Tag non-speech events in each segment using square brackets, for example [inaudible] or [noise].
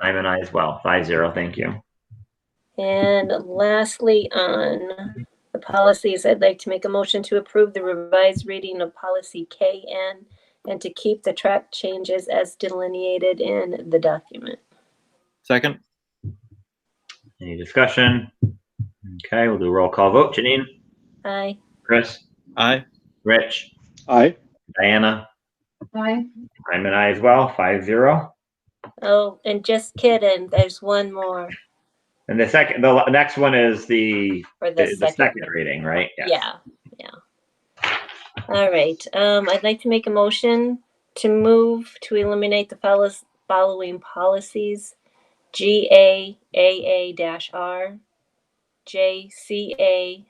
I'm an I as well, five zero, thank you. And lastly, on the policies, I'd like to make a motion to approve the revised reading of policy KN and to keep the track changes as delineated in the document. Second? Any discussion? Okay, we'll do a roll call vote. Janine, Aye. Chris, Aye. Rich, Aye. Diana, Aye. I'm an I as well, five zero. Oh, and just kidding, there's one more And the second, the la- next one is the, for the the the second. second reading, right? Yes. Yeah, yeah. All right, um, I'd like to make a motion to move to eliminate the follows- following policies. G A A A dash R, J C A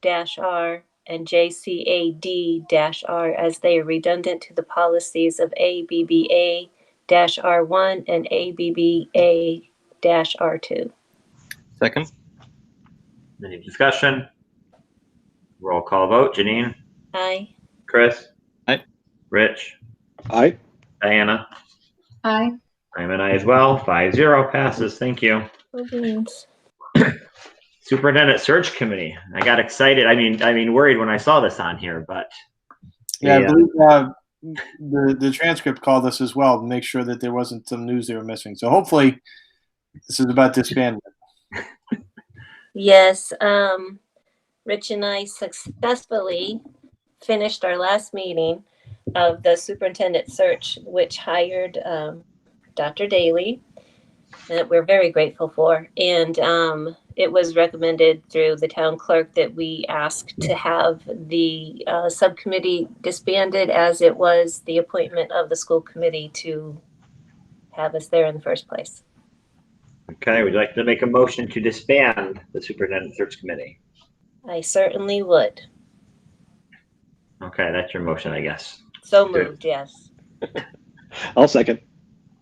dash R, and J C A D dash R as they are redundant to the policies of A B B A dash R one and A B B A dash R two. Second? Any discussion? Roll call vote. Janine, Aye. Chris? Aye. Rich, Aye. Diana, Aye. I'm an I as well, five zero passes, thank you. Superintendent Search Committee, I got excited, I mean, I mean worried when I saw this on here, but Yeah, Yeah. I believe, uh, the, the transcript called us as well to make sure that there wasn't some news they were missing. So hopefully this is about disbandment. Yes, um, Rich and I successfully finished our last meeting of the superintendent search, which hired, um, Dr. Daly, that we're very grateful for. And, um, it was recommended through the town clerk that we ask to have the, uh, subcommittee disbanded as it was the appointment of the school committee to have us there in the first place. uh, okay, would you like to make a motion to disband the Superintendent Search Committee? I certainly would. Okay, that's your motion, I guess. So Okay. moved, yes. I'll second.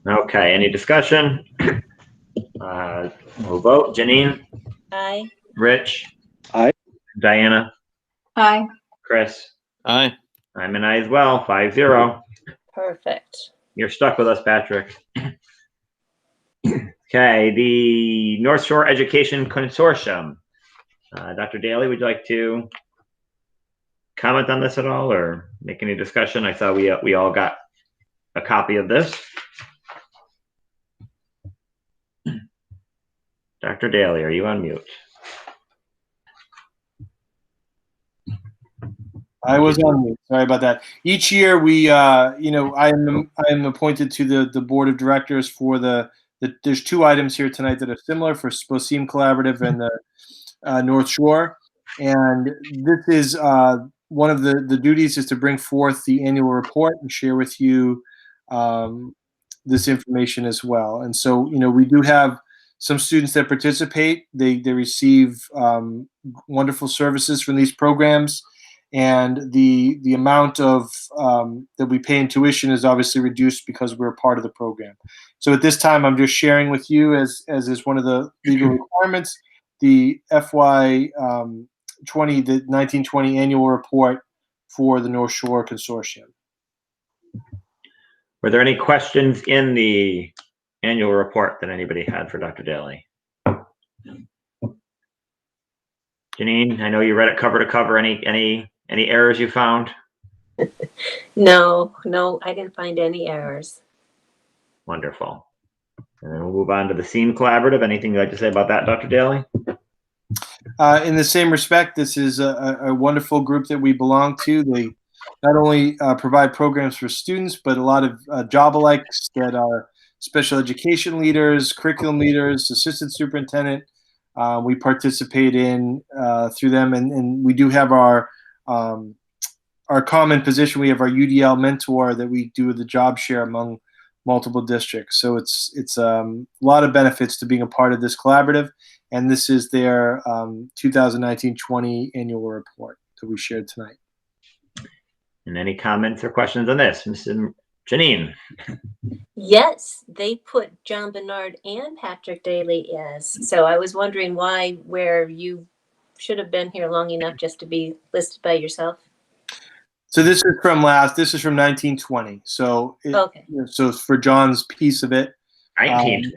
Okay, any discussion? Uh, We'll vote. Janine, Aye. Rich? Aye. Diana, Aye. Chris? Aye. I'm an I as well, five zero. Perfect. You're stuck with us, Patrick. [clears throat] Okay, the North Shore Education Consortium. Uh, Dr. Daly, would you like to comment on this at all or make any discussion? I saw we, uh, we all got a copy of this. [clears throat] Dr. Daly, are you on mute? I was on mute. Sorry about that. Each year, we, uh, you know, I am I am appointed to the the board of directors for the, the there's two items here tonight that are similar for Sposeem Collaborative and the uh, North Shore, and this is uh, one of the the duties is to bring forth the annual report and share with you um, this information as well. And so, you know, we do have some students that participate. They they receive um, wonderful services from these programs and the the amount of um, that we pay in tuition is obviously reduced because we're a part of the program. So at this time, I'm just sharing with you, as as is one of the legal requirements, the FY um, 20 the 1920 annual report for the North Shore Consortium. Were there any questions in the annual report that anybody had for Dr. Daly? Janine, I know you read it cover to cover. Any, any, any errors you found? No, no, I didn't find any errors. Wonderful. And then we'll move on to the SEAM Collaborative. Anything you'd like to say about that, Dr. Daly? Uh, in the same respect, this is a, a- a wonderful group that we belong to. They not only uh, provide programs for students, but a lot of uh, job alikes that are special education leaders, curriculum leaders, assistant superintendent. Uh, we participate in uh, through them, and, and we do have our um, our common position. We have our UDL mentor that we do the job share among multiple districts. So it's it's um, a lot of benefits to being a part of this collaborative and this is their um, 2019-20 annual report that we shared tonight. And any comments or questions on this? Mrs. Janine? Yes, they put John Bernard and Patrick Daly as. So I was wondering why, where you should have been here long enough just to be listed by yourself. So this is from last. This is from 1920. So it, Okay. so for John's piece of it, Nineteen.